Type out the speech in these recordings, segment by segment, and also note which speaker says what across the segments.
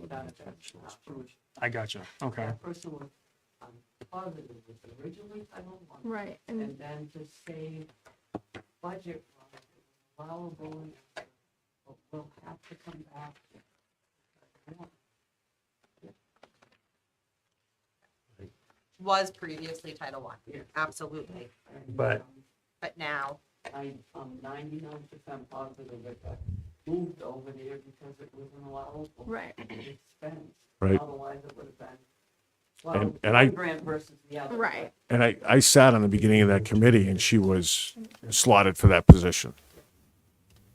Speaker 1: without a variance approach.
Speaker 2: I gotcha. Okay.
Speaker 1: That person was um, positive was originally Title One,
Speaker 3: Right, and
Speaker 1: and then to save budget, wise, it was allowable, and but we'll have to come back.
Speaker 4: was previously Title One,
Speaker 1: Yeah.
Speaker 4: absolutely,
Speaker 1: And,
Speaker 2: But-
Speaker 1: um,
Speaker 4: but now,
Speaker 1: I, I'm ninety-nine percent positive that that moved over there because it was an allowable
Speaker 3: right,
Speaker 1: expense.
Speaker 5: Right.
Speaker 1: Otherwise, it would have been, well,
Speaker 5: And- and I-
Speaker 1: one brand versus the other.
Speaker 3: right.
Speaker 5: And I, I sat on the beginning of that committee and she was slotted for that position.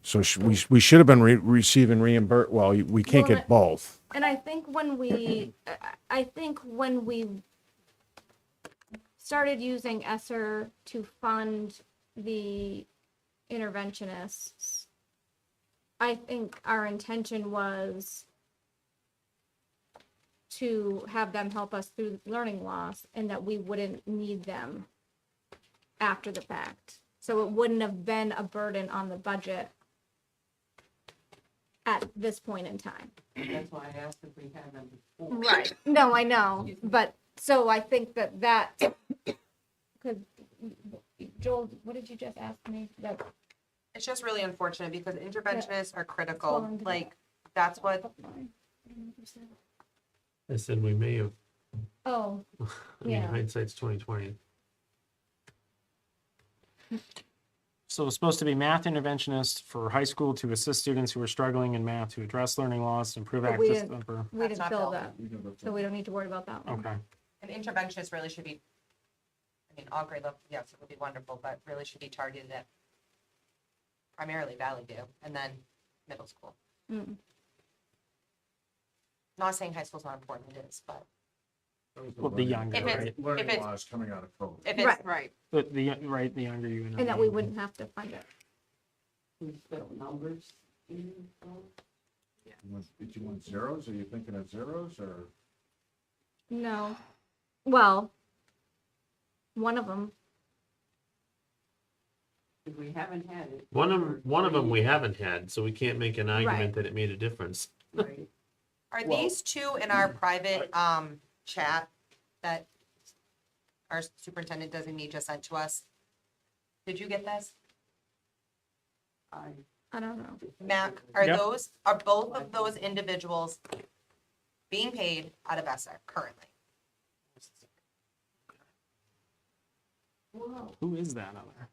Speaker 5: So sh we, we should have been re- receiving reimbursed, well, we can't
Speaker 3: Well,
Speaker 5: get both.
Speaker 3: And I think when we, I- I think when we started using Esser to fund the interventionists, I think our intention was to have them help us through learning loss and that we wouldn't need them after the fact. So it wouldn't have been a burden on the budget at this point in time.
Speaker 1: but That's why I asked if we had them before.
Speaker 3: Right. No, I know, but, so I think that that, because Joel, what did you just ask me? That,
Speaker 4: it's just really unfortunate because interventionists
Speaker 3: Well,
Speaker 4: are critical,
Speaker 3: and-
Speaker 4: like, that's what,
Speaker 6: I said we may have,
Speaker 3: oh,
Speaker 6: I mean,
Speaker 3: Yeah.
Speaker 6: hindsight's twenty twenty.
Speaker 2: So it's supposed to be math interventionist for high school to assist students who are struggling in math to address learning loss, improve
Speaker 3: But we
Speaker 2: access.
Speaker 3: didn't-
Speaker 2: for-
Speaker 3: we
Speaker 4: That's
Speaker 3: didn't
Speaker 4: not
Speaker 3: fill
Speaker 4: filled.
Speaker 3: that, so we don't need to worry about that one.
Speaker 2: Okay.
Speaker 4: an interventionist really should be, I mean, all grade level, yes, it would be wonderful, but really should be targeted at primarily Valley View and then middle school.
Speaker 3: Mm.
Speaker 4: Not saying high school's not important, it is, but
Speaker 2: Well, the younger,
Speaker 4: If it's-
Speaker 2: right?
Speaker 4: if it's-
Speaker 5: laws coming out of COVID.
Speaker 4: if it's,
Speaker 1: Right.
Speaker 2: But the, right, the younger you.
Speaker 3: And that we
Speaker 2: intervene.
Speaker 3: wouldn't have to fund it.
Speaker 1: We spelled numbers in, um,
Speaker 5: Did you want zeros? Are you thinking of zeros or?
Speaker 3: No, well, one of them,
Speaker 1: if we haven't had it.
Speaker 6: One of,
Speaker 1: for
Speaker 6: one of them
Speaker 1: three
Speaker 6: we haven't had, so we can't make an
Speaker 3: Right.
Speaker 6: argument that it made a difference.
Speaker 1: Right,
Speaker 4: are
Speaker 5: Well-
Speaker 4: these two in our private, um, chat that our superintendent designee just sent to us? Did you get this?
Speaker 1: I.
Speaker 3: I don't know.
Speaker 4: Mac, are
Speaker 2: Yep.
Speaker 4: those, are both of those individuals being paid out of ESSER currently?
Speaker 1: Wow,
Speaker 2: Who is that other?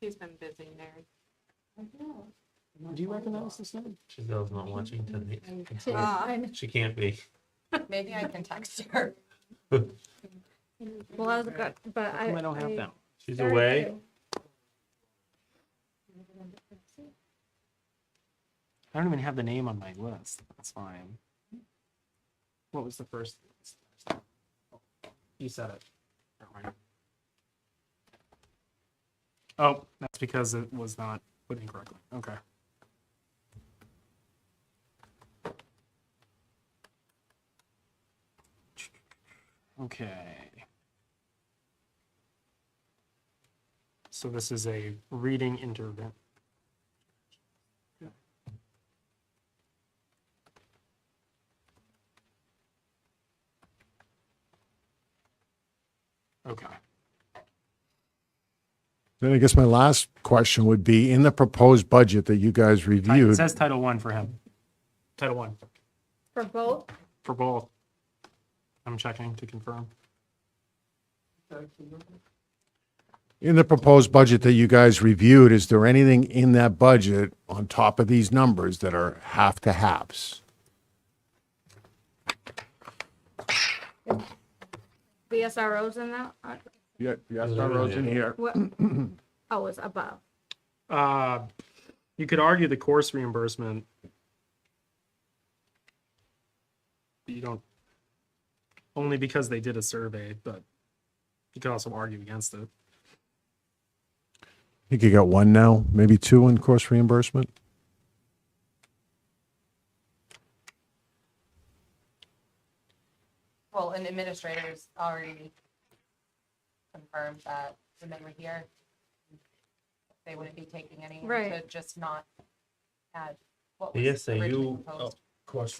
Speaker 7: He's been busy there.
Speaker 1: I know.
Speaker 2: Do you recognize this name?
Speaker 6: Giselle's not watching tonight.
Speaker 3: I know.
Speaker 6: She can't be.
Speaker 4: Uh, Maybe I can text her.
Speaker 3: Well, I was, good, but I.
Speaker 2: I don't have that.
Speaker 6: She's
Speaker 3: Sorry,
Speaker 6: away.
Speaker 3: too.
Speaker 2: I don't even have the name on my list. That's fine. What was the first? You said it. Never mind. Oh, that's because it was not put in correctly. Okay. Okay. So this is a reading intervention. Okay.
Speaker 5: Then I guess my last question would be, in the proposed budget that you guys
Speaker 2: Ti- It
Speaker 5: reviewed,
Speaker 2: says Title One for him. Title One
Speaker 3: For both,
Speaker 2: for both. I'm checking to confirm.
Speaker 5: in the proposed budget that you guys reviewed, is there anything in that budget on top of these numbers that are half to halves?
Speaker 3: the SROs in that, uh,
Speaker 5: Yeah, yes,
Speaker 6: that rows in
Speaker 5: here.
Speaker 3: what, oh, it's above.
Speaker 2: Uh, you could argue the course reimbursement. But You don't, only because they did a survey, but you could also argue against it.
Speaker 5: I think you got one now, maybe two in course reimbursement.
Speaker 4: Well, an administrator's already confirmed that when they were here, they wouldn't be taking any,
Speaker 3: Right.
Speaker 4: to just not add what
Speaker 6: The
Speaker 4: was originally
Speaker 6: SAU,
Speaker 4: proposed.
Speaker 6: Oh, of course,